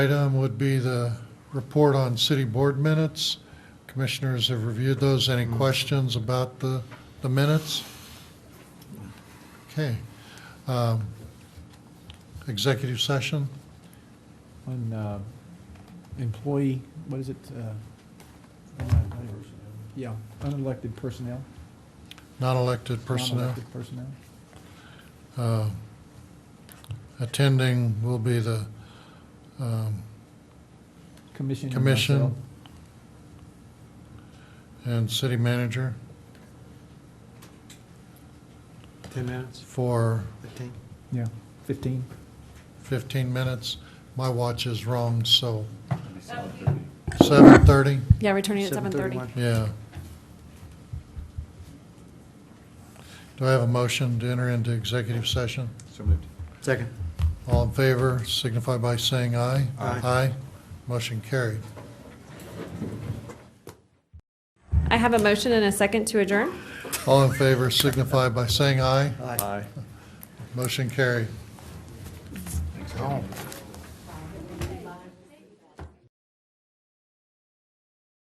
Item would be the report on city board minutes. Commissioners have reviewed those. Any questions about the, the minutes? Okay. Um, Executive session? On uh, employee, what is it? uh, un- un- Yeah, unelected personnel. Non-elected personnel. Non-elected personnel. Uh, Attending will be the um, Commission. and Commission. myself. and city manager 10 minutes, for 15? Yeah, 15. 15 minutes. My watch is wrong, so 7:30? Yeah, returning at seven thirty. Yeah. Do I have a motion to enter into executive session? So moved. Second. All in favor signify by saying aye. Aye. Aye. Motion carried. I have a motion and a second to adjourn. All in favor signify by saying aye. Aye. Aye. Motion carried. Thanks, Kevin.